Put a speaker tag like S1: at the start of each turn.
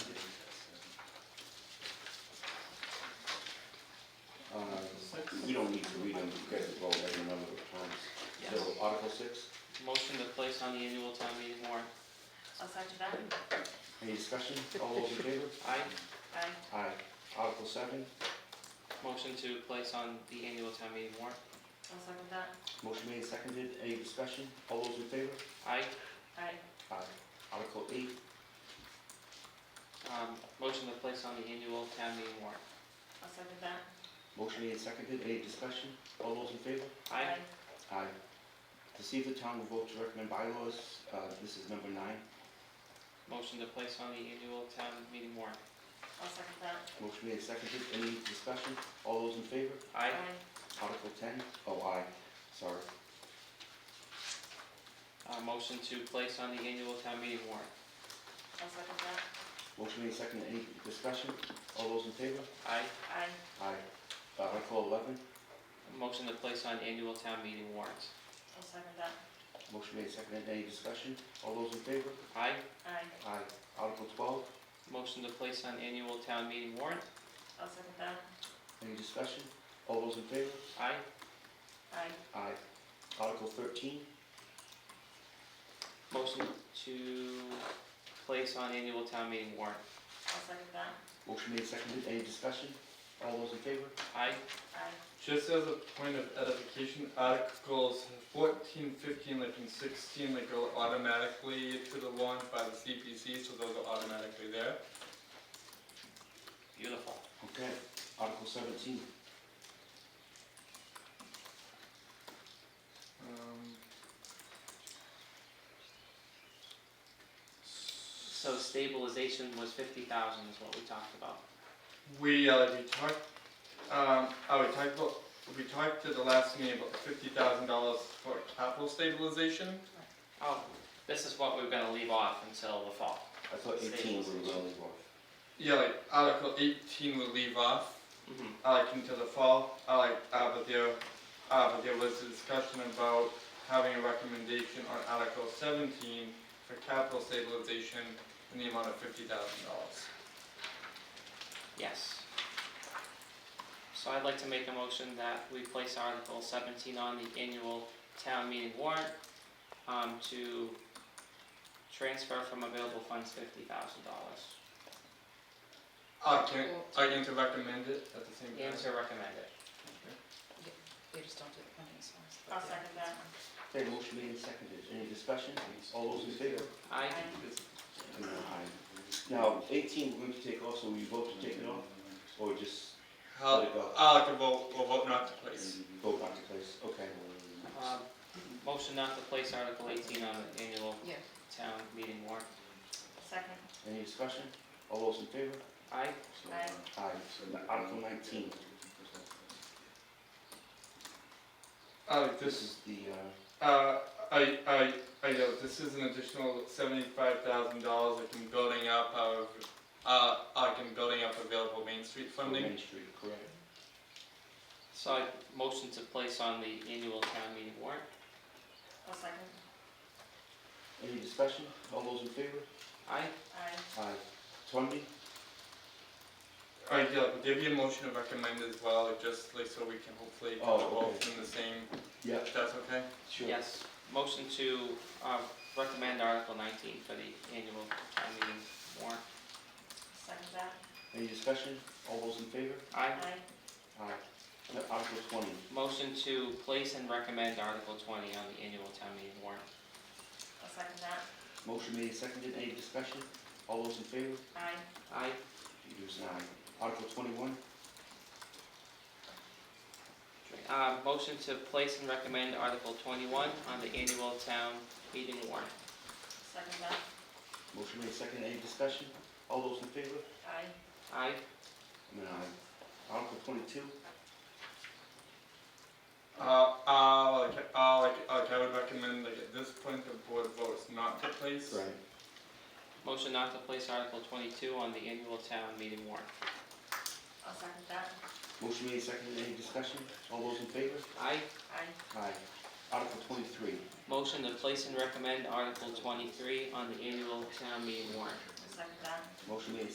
S1: Uh, and you guys will go ahead and remember the terms.
S2: Yes.
S1: So Article six,
S2: Motion to place on the annual town meeting warrant.
S3: I'll second that.
S1: any discussion? All those in favor?
S2: Aye.
S3: Aye.
S1: Aye. Article seven,
S2: Motion to place on the annual town meeting warrant.
S3: I'll second that.
S1: motion made, seconded, any discussion? All those in favor?
S2: Aye.
S3: Aye.
S1: Aye. Article eight,
S2: Um, Motion to place on the annual town meeting warrant.
S3: I'll second that.
S1: motion made, seconded, any discussion? All those in favor?
S2: Aye.
S1: Aye. To see if the town will vote to recommend bylaws, uh, this is number nine.
S2: Motion to place on the annual town meeting warrant.
S3: I'll second that.
S1: Motion made, seconded, any discussion? All those in favor?
S2: Aye.
S1: Article ten, oh, aye, sorry.
S2: Uh, Motion to place on the annual town meeting warrant.
S3: I'll second that.
S1: Motion made, seconded, any discussion? All those in favor?
S2: Aye.
S3: Aye.
S1: Aye. Article eleven,
S2: Motion to place on annual town meeting warrant.
S3: I'll second that.
S1: motion made, seconded, any discussion? All those in favor?
S2: Aye.
S3: Aye.
S1: Aye. Article twelve,
S2: Motion to place on annual town meeting warrant.
S3: I'll second that.
S1: any discussion? All those in favor?
S2: Aye.
S3: Aye.
S1: Aye. Article thirteen,
S2: Motion to place on annual town meeting warrant.
S3: I'll second that.
S1: motion made, seconded, any discussion? All those in favor?
S2: Aye.
S3: Aye.
S4: Just as a point of edification, articles 14, 15, like and 16, like go automatically to the warrant by the CPC, so those are automatically there.
S2: Beautiful.
S1: Okay, Article seventeen,
S4: Um,
S2: So stabilization was fifty thousand is what we talked about.
S4: We, uh, we talked, um, oh, we talked about, we talked at the last meeting about fifty thousand dollars for capital stabilization.
S2: Oh, this is what we're gonna leave off until the fall.
S1: I thought eighteen we were going to go.
S4: Yeah, like Article eighteen would leave off,
S2: Mhm.
S4: uh, like into the fall, uh, like, uh, but there, uh, but there was a discussion about having a recommendation on Article seventeen for capital stabilization in the amount of fifty thousand dollars.
S2: Yes. So I'd like to make a motion that we place Article seventeen on the annual town meeting warrant, um, to transfer from available funds fifty thousand dollars.
S4: Uh, can, are you going to recommend it at the same time?
S2: And to recommend it.
S5: They just don't do the funding source.
S3: I'll second that.
S1: Okay, motion made, seconded, any discussion? All those in favor?
S2: Aye.
S3: Aye.
S1: No, aye. Now, eighteen, we're going to take also, will you vote to take it off? Or just
S4: How,
S1: let it go?
S4: uh, like a vote, or vote not to place.
S1: Vote back to place, okay.
S2: Um, motion not to place Article eighteen on the annual
S5: Yeah.
S2: town meeting warrant.
S3: Second.
S1: Any discussion? All those in favor?
S2: Aye.
S3: Aye.
S1: Aye. Article nineteen,
S4: Uh, like
S1: this
S4: this
S1: is the, uh,
S4: Uh, I, I, I know, this is an additional seventy-five thousand dollars I can building up of, uh, I can building up available Main Street funding.
S1: Main Street, correct?
S2: So I motion to place on the annual town meeting warrant.
S3: I'll second.
S1: Any discussion? All those in favor?
S2: Aye.
S3: Aye.
S1: Aye. Twenty,
S4: Alright, yeah, but give you a motion to recommend as well, like, just like, so we can hopefully get
S1: Oh,
S4: both
S1: okay.
S4: in the same,
S1: yeah,
S4: if that's okay?
S1: sure.
S2: Yes. Motion to, uh, recommend Article nineteen for the annual town meeting warrant.
S3: Second that.
S1: Any discussion? All those in favor?
S2: Aye.
S3: Aye.
S1: Aye. Now, Article twenty,
S2: Motion to place and recommend Article twenty on the annual town meeting warrant.
S3: I'll second that.
S1: motion made, seconded, any discussion? All those in favor?
S3: Aye.
S2: Aye.
S1: It is an aye. Article twenty-one,
S2: Uh, motion to place and recommend Article twenty-one on the annual town meeting warrant.
S3: Second that.
S1: motion made, seconded, any discussion? All those in favor?
S3: Aye.
S2: Aye.
S1: I'm an aye. Article twenty-two,
S4: Uh, uh, like, uh, like, like, I would recommend, like, at this point, the board votes not to place.
S1: right.
S2: Motion not to place Article twenty-two on the annual town meeting warrant.
S3: I'll second that.
S1: Motion made, seconded, any discussion? All those in favor?
S2: Aye.
S3: Aye.
S1: Aye. Article twenty-three,
S2: Motion to place and recommend Article twenty-three on the annual town meeting warrant.
S3: I'll second that.
S1: motion made,